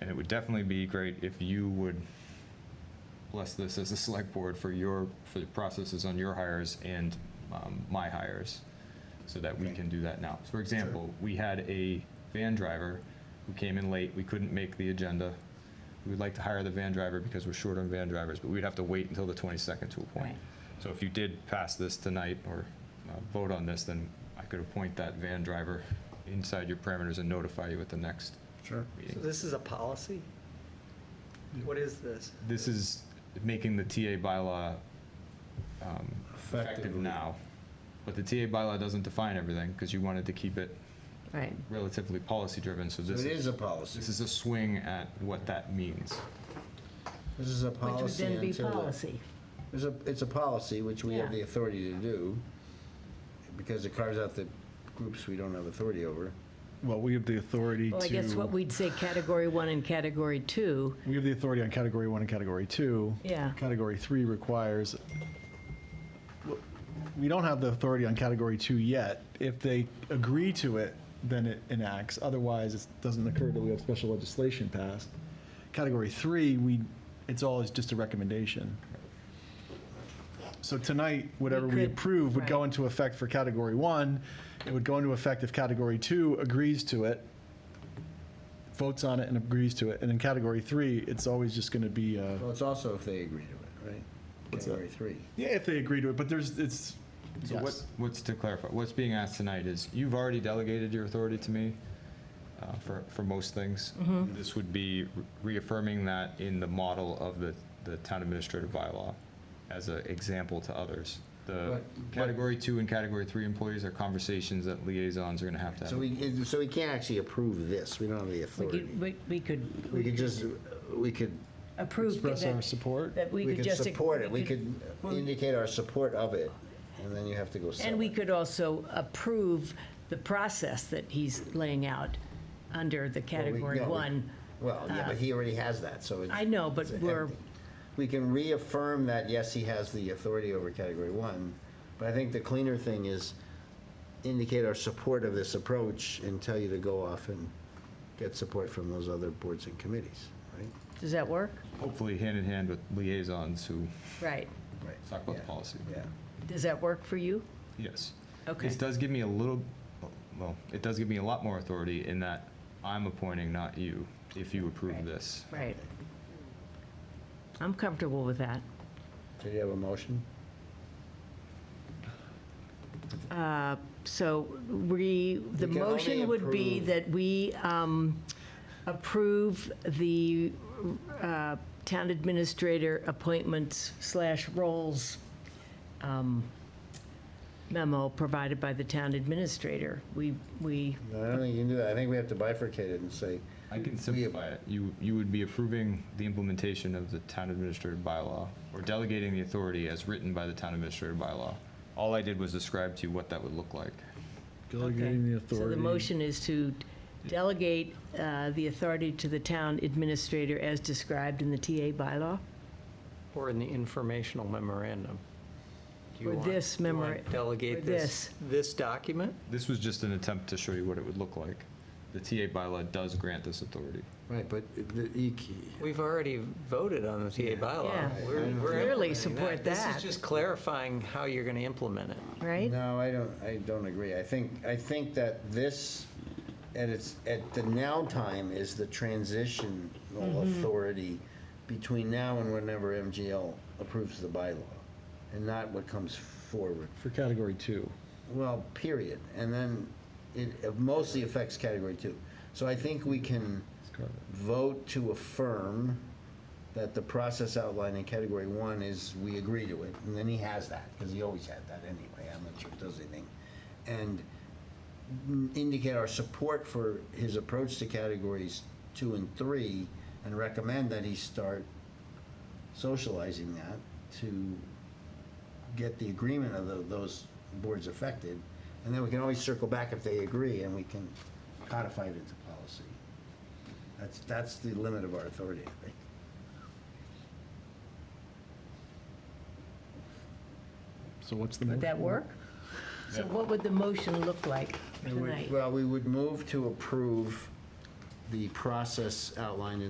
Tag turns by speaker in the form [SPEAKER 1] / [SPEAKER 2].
[SPEAKER 1] And it would definitely be great if you would bless this as a select board for your, for the processes on your hires and um, my hires, so that we
[SPEAKER 2] Okay.
[SPEAKER 1] can do that now. So For example, we had a van driver who came in late, we couldn't make the agenda. We'd like to hire the van driver because we're short on van drivers, but we'd have to wait until the 22nd to appoint.
[SPEAKER 3] Right.
[SPEAKER 1] So if you did pass this tonight or uh, vote on this, then I could appoint that van driver inside your parameters and notify you at the next
[SPEAKER 2] Sure.
[SPEAKER 4] So
[SPEAKER 1] meeting.
[SPEAKER 4] this is a policy? What is this?
[SPEAKER 1] This is making the TA bylaw um, effective now. But the TA bylaw doesn't define everything because you wanted to keep it
[SPEAKER 3] Right.
[SPEAKER 1] relatively policy-driven, so
[SPEAKER 2] So
[SPEAKER 1] this
[SPEAKER 2] it
[SPEAKER 1] is,
[SPEAKER 2] is a policy.
[SPEAKER 1] this is a swing at what that means.
[SPEAKER 2] This is a
[SPEAKER 3] Which would
[SPEAKER 2] policy
[SPEAKER 3] then be
[SPEAKER 2] until. the-
[SPEAKER 3] policy.
[SPEAKER 2] It's a, it's a policy, which we have
[SPEAKER 3] Yeah.
[SPEAKER 2] the authority to do, because it carves out the groups we don't have authority over.
[SPEAKER 5] Well, we have the authority to.
[SPEAKER 3] Well, I guess what we'd say category one and category two,
[SPEAKER 5] We have the authority on category one and category two.
[SPEAKER 3] Yeah.
[SPEAKER 5] Category three requires, we don't have the authority on category two yet. If they agree to it, then it enacts. Otherwise, it doesn't occur that we have special legislation passed. Category three, we, it's always just a recommendation. So tonight, whatever we
[SPEAKER 3] could-
[SPEAKER 5] approve would go
[SPEAKER 3] right.
[SPEAKER 5] into effect for category one. It would go into effect if category two agrees to it, votes on it and agrees to it. And in category three, it's always just going to be, uh,
[SPEAKER 2] Well, it's also if they agree to it, right?
[SPEAKER 5] What's that?
[SPEAKER 2] Category three.
[SPEAKER 5] yeah, if they agree to it, but there's, it's,
[SPEAKER 1] So what,
[SPEAKER 5] yes.
[SPEAKER 1] what's to clarify, what's being asked tonight is, you've already delegated your authority to me uh, for, for most things.
[SPEAKER 2] Mm-hmm.
[SPEAKER 1] This would be reaffirming that in the model of the, the town administrative bylaw as an example to others. The
[SPEAKER 2] But- but-
[SPEAKER 1] category two and category three employees are conversations that liaisons are gonna have to have.
[SPEAKER 2] So we, so we can't actually approve this, we don't have the
[SPEAKER 3] we
[SPEAKER 2] authority.
[SPEAKER 3] could, we- we
[SPEAKER 2] We
[SPEAKER 3] could
[SPEAKER 2] could just, we could,
[SPEAKER 3] approve.
[SPEAKER 5] express
[SPEAKER 3] that-
[SPEAKER 5] our support.
[SPEAKER 3] That we
[SPEAKER 2] we could
[SPEAKER 3] could just.
[SPEAKER 2] support it, we could
[SPEAKER 3] well,
[SPEAKER 2] indicate our support of it, and then you have to go sell
[SPEAKER 3] And we
[SPEAKER 2] it.
[SPEAKER 3] could also approve the process that he's laying out under the
[SPEAKER 2] Well, we-
[SPEAKER 3] category
[SPEAKER 2] no, we-
[SPEAKER 3] one.
[SPEAKER 2] Well, yeah, but he already has that, so. it's-
[SPEAKER 3] I know, Oh, but
[SPEAKER 2] it's
[SPEAKER 3] we're-
[SPEAKER 2] empty. We can reaffirm that, yes, he has the authority over category one, but I think the cleaner thing is indicate our support of this approach and tell you to go off and get support from those other boards and committees, right?
[SPEAKER 3] Does that work?
[SPEAKER 1] Hopefully hand in hand with liaisons who
[SPEAKER 3] Right.
[SPEAKER 2] Right.
[SPEAKER 1] talk about the
[SPEAKER 2] Yeah.
[SPEAKER 1] policy.
[SPEAKER 2] Yeah.
[SPEAKER 3] Does that work for you?
[SPEAKER 1] Yes.
[SPEAKER 3] Okay.
[SPEAKER 1] This does give me a little, well, it does give me a lot more authority in that I'm appointing, not you, if you approve
[SPEAKER 3] Right.
[SPEAKER 1] this.
[SPEAKER 3] Right. I'm comfortable with that.
[SPEAKER 2] So do you have a motion?
[SPEAKER 3] So we, the
[SPEAKER 2] We can only
[SPEAKER 3] motion would be
[SPEAKER 2] approve-
[SPEAKER 3] that we um, approve the uh, town administrator appointments slash roles um, memo provided by the town administrator. We, we,
[SPEAKER 2] No, I don't think you can do that. I think we have to bifurcate it and say,
[SPEAKER 1] I can simplify it. You, you would be approving the implementation of the town administrative bylaw or delegating the authority as written by the town administrative bylaw. All I did was describe to you what that would look like.
[SPEAKER 5] Delegating the
[SPEAKER 3] Okay. So
[SPEAKER 5] authority.
[SPEAKER 3] the motion is to delegate uh, the authority to the town administrator as described in the TA bylaw?
[SPEAKER 6] Or in the informational memorandum. Do you
[SPEAKER 3] Or
[SPEAKER 6] want-
[SPEAKER 3] this
[SPEAKER 6] do you
[SPEAKER 3] memora-
[SPEAKER 6] want to
[SPEAKER 3] or
[SPEAKER 6] Delegate this, this document?
[SPEAKER 1] This was just an attempt to show you what it would look like. The TA bylaw does grant this authority.
[SPEAKER 2] right, but the- you c-
[SPEAKER 6] We've already voted on the TA
[SPEAKER 3] Yeah.
[SPEAKER 6] bylaw. We're-
[SPEAKER 2] I know.
[SPEAKER 6] we're
[SPEAKER 3] Clearly
[SPEAKER 6] implementing
[SPEAKER 3] support
[SPEAKER 6] This
[SPEAKER 3] that.
[SPEAKER 6] is just clarifying how you're going to implement it.
[SPEAKER 3] Right?
[SPEAKER 2] No, I don't, I don't agree. I think, I think that this, at its, at the now time is the transitional authority between now and whenever MGL approves the bylaw, and not what comes forward.
[SPEAKER 5] For category two.
[SPEAKER 2] Well, period. And then it mostly affects category two. So I think we can vote to affirm that the process outlined in category one is we agree to it. And then he has that, because he always had that anyway. I'm not sure it does anything. And indicate our support for his approach to categories two and three and recommend that he start socializing that to get the agreement of tho- those boards affected, and then we can always circle back if they agree, and we can codify it into policy. That's, that's the limit of our authority, I think.
[SPEAKER 5] So what's the?
[SPEAKER 3] Would that work? So what would the motion look like
[SPEAKER 2] We would-
[SPEAKER 3] tonight?
[SPEAKER 2] Well, we would move to approve the process outlined in